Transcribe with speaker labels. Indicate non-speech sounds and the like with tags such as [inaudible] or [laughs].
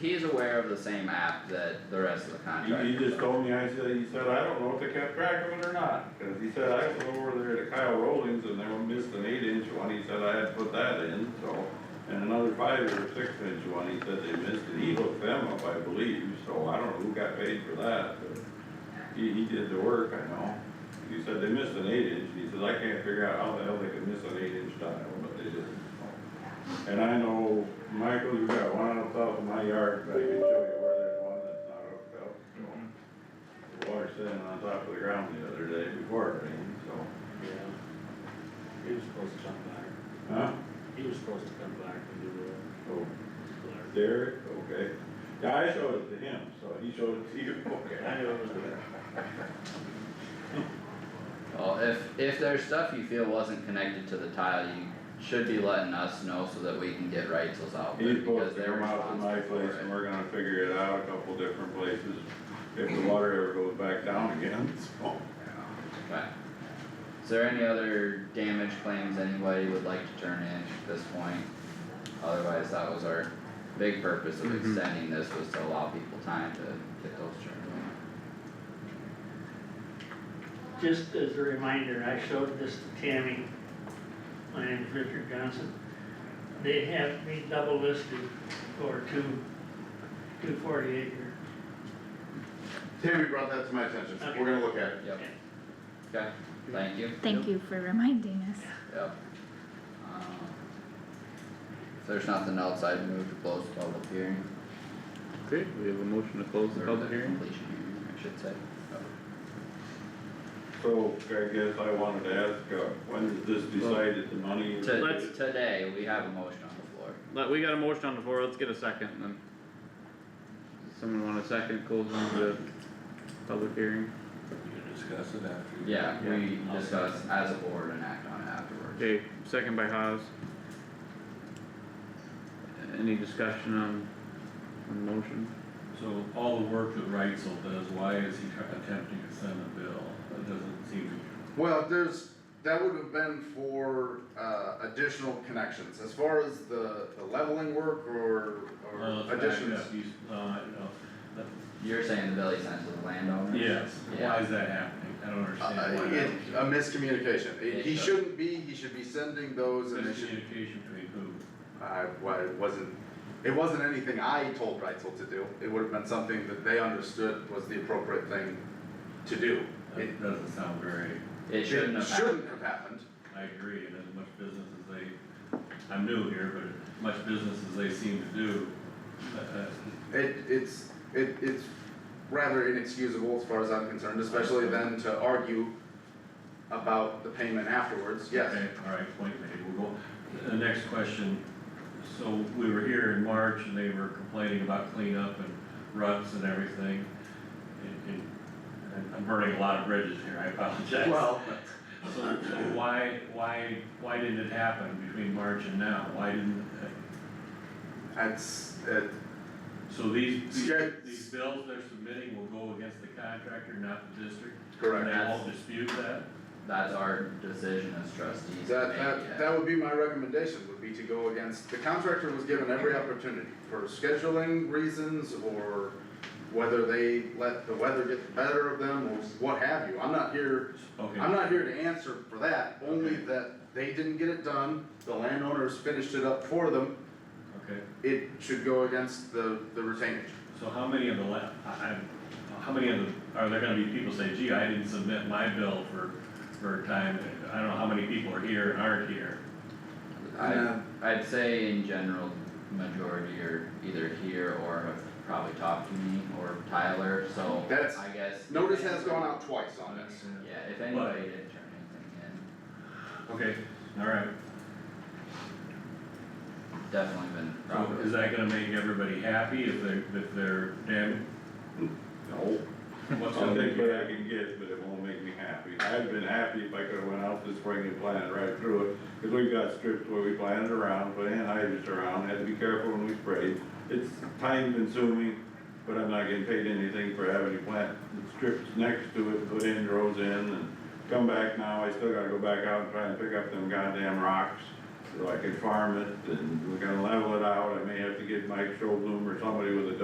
Speaker 1: He's aware of the same app that the rest of the
Speaker 2: He,
Speaker 1: contractors.
Speaker 2: he just
Speaker 1: are.
Speaker 2: told me, I said, he said, I don't know if they kept track of it or not, cause he said, I was over there to Kyle Rollins and they were missing an eight inch one, he said, I had to put that in, so. And another five or six inch one, he said they missed it, he hooked them up, I believe, so I don't know who got paid for that, but he, he did the work, I know. He said they missed an eight inch, he says, I can't figure out how the hell they could miss an eight inch tile, but they did, so. And I know, Michael, you got one on top of my yard, but I can show you where there's one that's not hooked up, so. The water sitting on top of the ground the other day before it rained, so,
Speaker 3: Yeah. He was supposed to come back,
Speaker 2: huh?
Speaker 3: he was supposed to come back and do the,
Speaker 2: So,
Speaker 3: the-
Speaker 2: Derek, okay. Yeah, I showed it to him, so he showed it to you, [laughs] okay.
Speaker 3: I knew it was there.
Speaker 1: Well, if, if there's stuff you feel wasn't connected to the tile, you should be letting us know so that we can get Raisles out there
Speaker 2: He's supposed
Speaker 1: because
Speaker 2: to
Speaker 1: they're
Speaker 2: come out to
Speaker 1: responsible
Speaker 2: my
Speaker 1: for
Speaker 2: place and
Speaker 1: it.
Speaker 2: we're gonna figure it out a couple different places if the water ever goes back down again, [laughs] so.
Speaker 1: Okay. Is there any other damage claims anybody would like to turn in at this point? Otherwise, that was our big purpose of
Speaker 4: Mhm.
Speaker 1: extending this was to allow people time to get those turned in.
Speaker 5: Just as a reminder, I showed this to Tammy. My name is Richard Johnson. They have me double listed for two, two forty acre.
Speaker 4: Tammy brought that to my attention,
Speaker 5: Okay.
Speaker 4: we're gonna look at it.
Speaker 1: Yep. Okay, thank you.
Speaker 6: Thank you for reminding us.
Speaker 1: Yep. Um, If there's nothing else, I'd move to close the public hearing.
Speaker 4: Okay, we have a motion to close
Speaker 1: Or the completion hearing, I should say.
Speaker 2: So I guess I wanted to ask, uh, when is this decided, the money? is-
Speaker 1: To,
Speaker 4: Let's-
Speaker 1: today, we have a motion on the floor.
Speaker 4: Let, we got a motion on the floor, let's get a second and then. Someone want a second, closing the public hearing?
Speaker 1: Yeah, we discuss as a board and act on it afterwards.
Speaker 4: Okay, second by Haas. Any discussion on, on the motion?
Speaker 7: So all the work that Reitzel does, why is he try- attempting to send a bill? That doesn't seem,
Speaker 8: Well, there's, that would have been for, uh, additional connections, as far as the, the leveling work or,
Speaker 7: well,
Speaker 8: or
Speaker 7: it's backed
Speaker 8: additions.
Speaker 7: up, he's, uh, I don't know.
Speaker 1: You're saying the Billy sent to the landowner?
Speaker 7: Yes, why
Speaker 1: Yeah.
Speaker 7: is that happening? I don't
Speaker 8: Uh,
Speaker 7: understand why
Speaker 8: it,
Speaker 7: that.
Speaker 8: a miscommunication, He- he
Speaker 1: Yeah.
Speaker 8: shouldn't be, he should be sending those and they should,
Speaker 7: Miscommunication between who?
Speaker 8: I, well, it wasn't, it wasn't anything I told Reitzel to do, it would have been something that they understood was the appropriate thing to do. It,
Speaker 7: That doesn't sound very,
Speaker 1: It shouldn't
Speaker 8: it
Speaker 1: have happened.
Speaker 8: shouldn't have happened,
Speaker 7: I agree, and as much business as they, I'm new here, but as much business as they seem to do, uh, uh,
Speaker 8: It, it's, it, it's rather inexcusable as far as I'm concerned, especially then to argue about the payment afterwards, yes.
Speaker 7: Okay, all right, point made, we'll go, the next question, so we were here in March and they were complaining about cleanup and ruts and everything. And- And, and I'm burning a lot of bridges here, I apologize.
Speaker 8: Well,
Speaker 7: So so why, why, why didn't it happen between March and now, why didn't,
Speaker 8: that's, it,
Speaker 7: so these, these-
Speaker 8: Sure.
Speaker 7: these bills they're submitting will go against the contractor, not the district? And
Speaker 8: correct.
Speaker 7: they won't dispute that?
Speaker 1: That's our decision as trustees to
Speaker 8: That,
Speaker 1: make, yeah.
Speaker 8: that, that would be my recommendation, would be to go against, the contractor was given every opportunity for scheduling reasons or whether they let the weather get the better of them or what have you. I'm not here
Speaker 7: Okay,
Speaker 8: I'm not here to answer for that, only that they didn't get it done, the landowners finished it up for them,
Speaker 7: okay.
Speaker 8: it should go against the, the retainage.
Speaker 7: So how many of the la, I, I, how many of the, are there gonna be people say, gee, I didn't submit my bill for, for a time, I don't know how many people are here and aren't here?
Speaker 1: I,
Speaker 8: Yeah.
Speaker 1: I'd say in general, majority are either here or have probably talked to me or Tyler, so
Speaker 8: That's-
Speaker 1: I guess.
Speaker 8: Notice has gone out twice on this.
Speaker 1: Yeah, if anybody didn't turn anything
Speaker 7: Okay, alright,
Speaker 1: in, definitely been
Speaker 7: so
Speaker 1: properly.
Speaker 7: is that gonna make everybody happy if they, if they're damn,
Speaker 2: No.
Speaker 7: what's
Speaker 2: I'll
Speaker 7: gonna
Speaker 2: take
Speaker 7: make
Speaker 2: what
Speaker 7: you
Speaker 2: I
Speaker 7: happy?
Speaker 2: can get, but it won't make me happy. I'd been happy if I could've went out this spring and planted right through it, cause we've got strips where we planted around, put anhydrous around, had to be careful when we sprayed. It's time consuming, but I'm not getting paid anything for having to plant the strips next to it, put in rows in and come back now, I still gotta go back out and try and pick up them goddamn rocks. so I can farm it, and we're gonna level it out, I may have to get Mike Schoblum or somebody with a